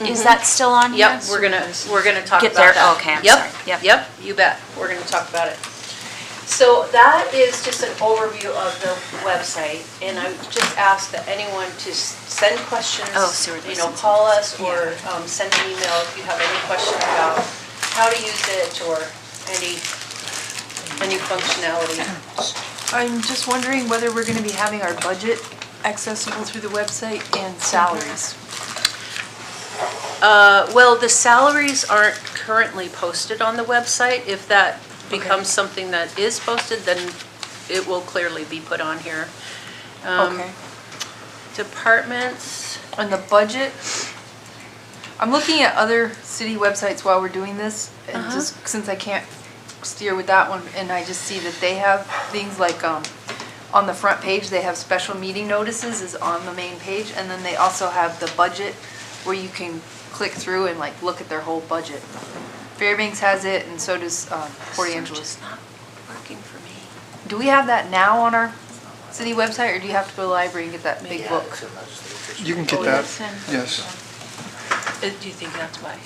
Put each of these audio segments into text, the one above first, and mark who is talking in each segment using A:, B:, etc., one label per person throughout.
A: Is that still on here?
B: Yep, we're gonna, we're gonna talk
A: Get
B: about
A: there.
B: that.
A: Okay, I'm sorry. Yep.
B: Yep, yep, you bet, we're gonna talk about it. So that is just an overview of the website, and I would just ask that anyone to s- send questions.
A: Oh, sewer
B: You know,
A: licenses.
B: call us or um, send an email if you have any question about how to use it or any, any functionality.
C: I'm just wondering whether we're going to be having our budget accessible through the website and salaries.
B: Uh, Well, the salaries aren't currently posted on the website. If that becomes something that is posted, then it will clearly be put on here. Um,
C: Okay.
B: Departments,
C: On the budget, I'm looking at other city websites while we're doing this, and just, since I can't steer with that one, and I just see that they have things like, um, on the front page, they have special meeting notices is on the main page, and then they also have the budget where you can click through and like look at their whole budget. Fairbanks has it, and so does, um, Port
B: search
C: Angeles.
B: is not working for me.
C: Do we have that now on our city website, or do you have to go to the library and get that big book?
D: You can get
C: Oh,
D: that,
C: yes, and-
D: yes.
B: Uh, Do you think that's why?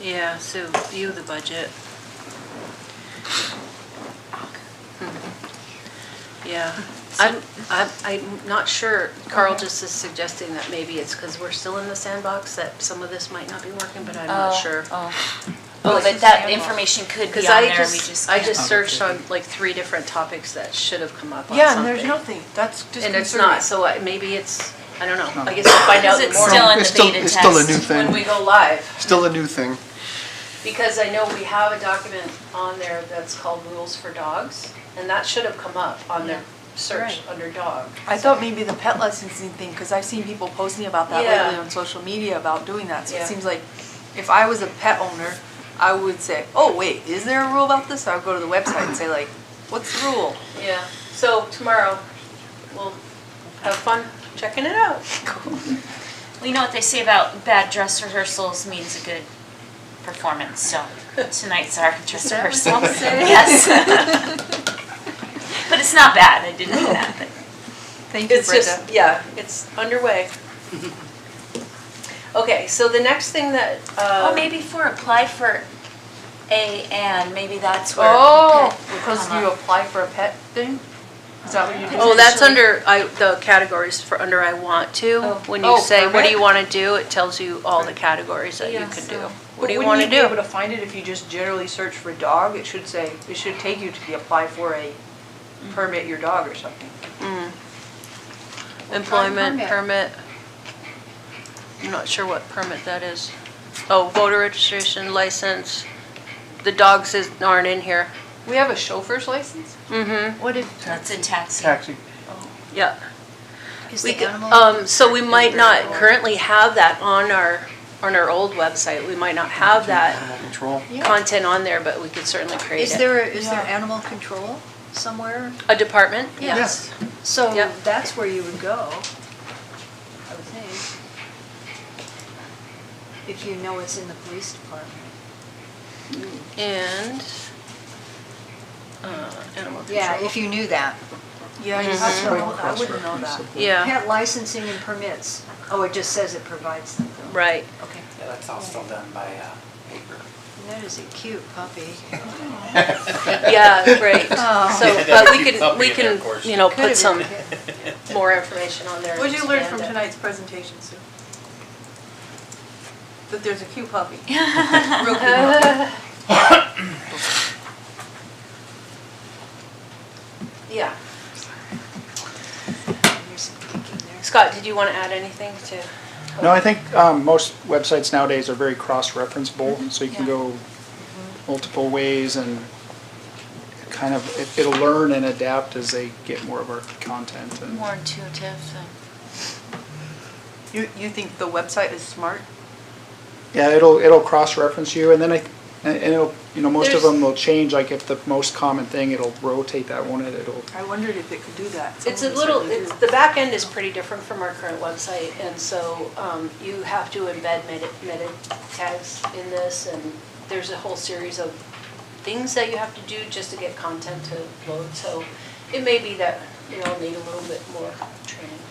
B: Yeah, so view the budget. Hmm. Yeah, I'm, I'm, I'm not sure, Carl just is suggesting that maybe it's because we're still in the sandbox, that some of this might not be working, but I'm not sure.
A: Oh, but that information could Oh, be
B: Because
A: on
B: I
A: there, we just
B: just, I
A: can't.
B: just searched on like three different topics that should have come up on something.
C: Yeah, and there's nothing, that's just
B: And it's
C: concerning.
B: not, so I- maybe it's, I don't know, I guess we'll find out
A: Is it
B: more
A: still in
D: It's
A: the
D: still-
A: beta
D: it's still a new
A: test?
D: thing.
B: when we go live.
D: Still a new thing.
B: Because I know we have a document on there that's called Rules for Dogs, and that should have come up on their search
A: Right.
B: under dog.
C: I thought maybe the pet licensing thing, because I've seen people posting about that
B: Yeah.
C: lately on social media about doing that, so
B: Yeah.
C: it seems like if I was a pet owner, I would say, oh, wait, is there a rule about this? I would go to the website and say like, what's the rule?
B: Yeah, so tomorrow, we'll have fun checking it out.
A: We know what they say about bad dress rehearsals means a good performance, so tonight's our dress rehearsal. Yes. But it's not bad, I didn't know that, but.
C: Thank you,
B: It's
C: Brenda.
B: just, yeah, it's underway. Okay, so the next thing that,
A: Well,
B: uh,
A: Oh, maybe for apply for A and, maybe that's where.
C: Oh,
A: pet would
C: because
A: come
C: you
A: up.
C: apply for a pet thing? Is that what you do?
B: oh, that's
A: potentially-
B: under, I, the categories for under I want to.
C: Oh.
B: When
C: Oh,
B: you say, what do
C: permit?
B: you want to do, it tells you all the categories that you
A: Yeah,
B: can do.
A: so-
B: What do you
C: Wouldn't
B: want to do?
C: be able to find it if you just generally search for dog? It should say, it should take you to the apply for a permit your dog or something.
B: Employment permit. I'm not sure what permit that is. Oh, voter registration license. The dogs is, aren't in here.
C: We have a chauffeur's license?
B: Mm-hmm,
C: What if?
A: That's in taxi.
D: Taxi.
B: yeah.
A: Is
B: We
A: the
B: c-
A: animal-
B: Um, so we might not currently have that on our, on our old website. We might not have that
D: Animal Control.
B: content on there, but we could certainly create
E: Is
B: it.
E: there, is there
C: Yeah.
E: animal control somewhere?
B: A department?
E: Yeah.
B: Yes.
E: So
B: Yep.
E: that's where you would go, I would think. If you know it's in the police department.
B: And, uh, animal
E: Yeah, if
B: control.
E: you knew that.
C: Yeah, I
B: Mhm.
C: just don't know. I wouldn't know that.
B: Yeah,
E: Pet licensing and permits. Oh, it just says it provides them.
B: right.
E: Okay.
F: Yeah, that's all still done by uh, paper.
E: And That is a cute puppy.
B: Yeah, right. So, but we
F: Keep up
B: can, we
F: in there,
B: can,
F: of course.
B: you know,
E: Oh. Could have
B: put some
E: been a kid.
B: more information on there.
C: What'd you learn
B: expand
C: from
B: it.
C: tonight's presentation, Sue? That there's a cute puppy.
B: uh, Yeah.
E: There's some kicking there.
B: Scott, did you want to add anything to?
D: No, I think um, most websites nowadays are very cross-referenceable, so you can
B: Mm-hmm. Yeah. Mm-hmm.
D: go multiple ways and kind of, it- it'll learn and adapt as they get more of our content and.
A: More intuitive and.
C: You, you think the website is smart?
D: Yeah, it'll, it'll cross-reference you, and then I, and and it'll, you know, most of
B: There's-
D: them will change, like if the most common thing, it'll rotate that one, and it'll,
C: I wondered if it could do that.
B: It's a
C: Someone
B: little,
C: certainly
B: it's, the
C: do.
B: back end is pretty different from our current website, and so um, you have to embed meta, meta tags in this, and there's a whole series of things that you have to do just to get content to load, so it may be that, you know, need a little bit more training.